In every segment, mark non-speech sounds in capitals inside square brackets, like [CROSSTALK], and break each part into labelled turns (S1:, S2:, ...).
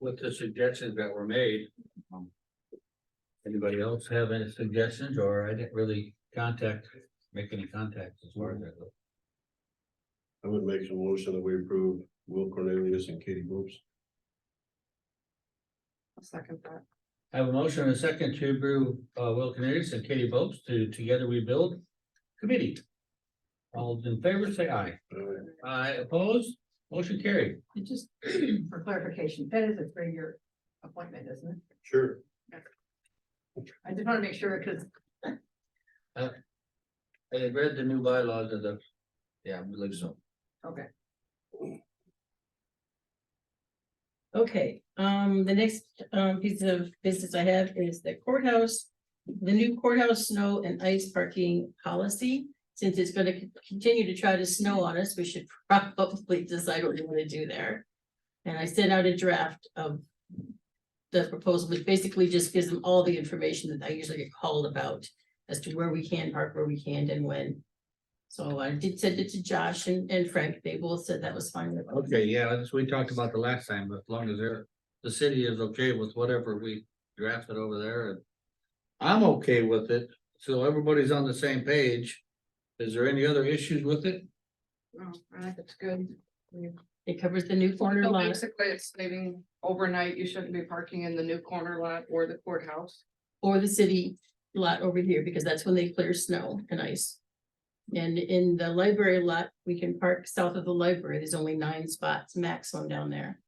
S1: with the suggestions that were made. Anybody else have any suggestions, or I didn't really contact, make any contacts as far as that goes?
S2: I would make a motion that we approve Will Cornelius and Katie Boops.
S3: I'll second that.
S1: I have a motion and a second to approve, uh, Will Canarius and Katie Bopes to Together We Build Committee. All in favor, say aye.
S2: Uh,
S1: Aye opposed, motion carried.
S4: It just, [CLEARS THROAT] for clarification, that is a three-year appointment, isn't it?
S2: Sure,
S4: I just wanna make sure, cause
S1: I had read the new bylaws of the, yeah, I believe so.
S5: Okay, um, the next, um, piece of business I have is the courthouse. The new courthouse snow and ice parking policy, since it's gonna con- continue to try to snow on us, we should [LAUGHS] probably decide what we wanna do there. And I sent out a draft of the proposal, which basically just gives them all the information that I usually get called about as to where we can park, where we can't and when. So I did send it to Josh and, and Frank, they both said that was fine. with them.
S1: Okay, yeah, that's, we talked about the last time, but as long as they're, the city is okay with whatever we drafted over there and. I'm okay with it, so everybody's on the same page. Is there any other issues with it?
S3: Oh, I think it's good.
S5: It covers the new corner
S3: So
S5: lot.
S3: Basically, it's saving overnight, you shouldn't be parking in the new corner lot or the courthouse.
S5: or the city lot over here, because that's when they clear snow and ice. And in the library lot, we can park south of the library, there's only nine spots maximum down there.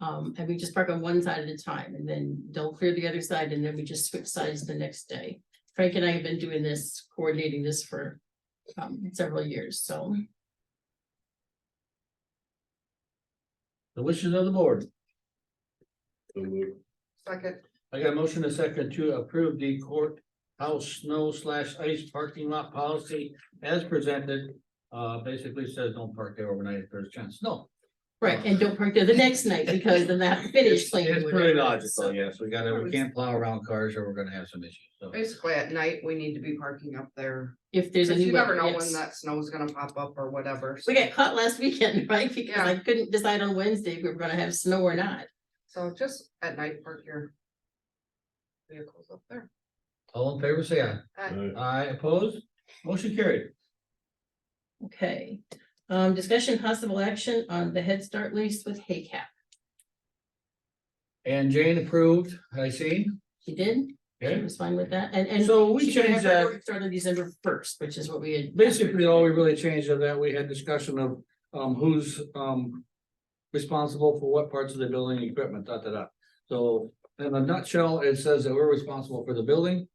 S5: Um, and we just park on one side at a time, and then they'll clear the other side, and then we just switch sides the next day. Frank and I have been doing this, coordinating this for, um, several years, so.
S1: The wishes of the board.
S2: so move.
S3: Second,
S1: I got a motion and a second to approve the courthouse snow slash ice parking lot policy as presented. Uh, basically says don't park there overnight if there's a chance. No.
S5: Right, and don't park there the next night, because then
S1: [LAUGHS]
S5: they have to finish
S1: It's-
S5: cleaning.
S1: It's pretty
S5: whatever,
S1: logical,
S5: so.
S1: yes. We gotta, we can't plow around cars or we're gonna have some issues, so.
S3: basically at night, we need to be parking up there.
S5: If there's a
S3: 'Cause
S5: new.
S3: you never
S5: one,
S3: know
S5: yes.
S3: when that snow's gonna pop up or whatever. so-
S5: We got caught last weekend, [LAUGHS] right? Because I couldn't decide on Wednesday if we were gonna have snow or not.
S3: So just at night, park your vehicles up there.
S1: All in favor, say aye.
S2: Uh,
S1: Aye opposed, motion carried.
S5: Okay, um, discussion possible action on the Head Start lease with Haycap.
S1: And Jane approved, I see.
S5: She did, she
S1: Okay.
S5: was fine with that, and, and.
S1: So we
S5: she could have
S1: changed
S5: her
S1: that.
S5: work Started December first, which is what we had.
S1: Basically, all we really changed of that, we had discussion of, um, who's, um. Responsible for what parts of the building, and equipment, da, da, da. So in a nutshell, it says that we're responsible for the building.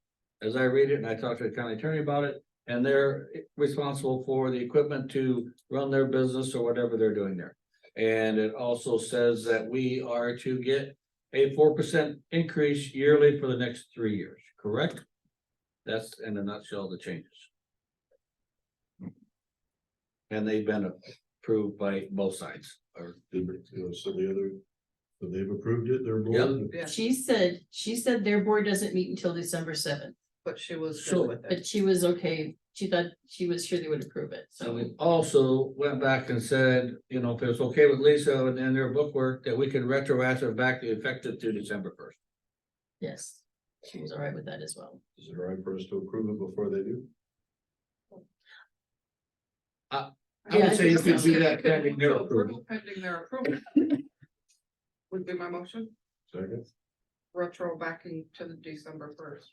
S1: As I read it and I talked to the county attorney about it, and they're responsible for the equipment to run their business or whatever they're doing there. And it also says that we are to get a four percent increase yearly for the next three years, correct? That's in a nutshell the changes. And they've been approved by both sides, or,
S2: did, uh, So the other, so they've approved it, they're.
S1: Yeah.
S3: Yeah,
S5: She said, she said their board doesn't meet until December seventh,
S3: but she was
S1: So-
S3: good with it.
S5: but she was okay. She thought, she was sure they would approve it,
S1: so
S5: so.
S1: we also went back and said, you know, if it's okay with Lisa and their bookwork, that we can retroactive back the effective to December first.
S5: Yes, she was all right with that as well.
S2: Is it all right for us to approve it before they do?
S1: I would say you
S5: could
S1: do that pending
S3: Pending
S1: their
S3: their
S1: approval.
S3: approval. Pending their
S1: [LAUGHS]
S3: approval. Would be my motion,
S2: Second,
S3: retro backing to the December first.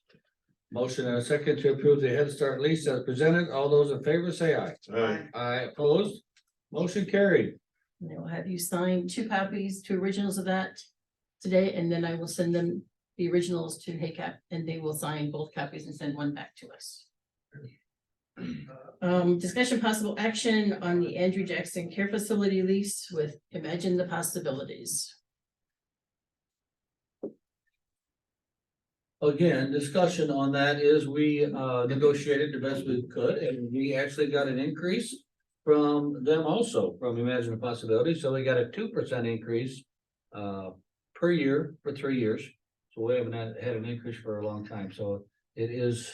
S1: Motion and a second to approve the Head Start lease as presented. All those in favor say aye.
S2: aye,
S1: Aye opposed. Motion carried.
S5: And I will have you sign two copies, two originals of that today, and then I will send them the originals to HACAP, and they will sign both copies and send one back to us. Um, discussion possible action on the Andrew Jackson Care Facility lease with Imagine the Possibilities.
S1: Again, discussion on that is we uh negotiated the best we could and we actually got an increase. From them also, from Imagine a Possibility, so we got a two percent increase. Uh, per year for three years, so we haven't had had an increase for a long time, so it is.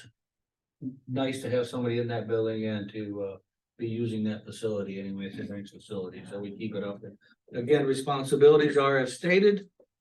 S1: Nice to have somebody in that building and to uh be using that facility anyway, it's a nice facility, so we keep it up. Again, responsibilities are as stated,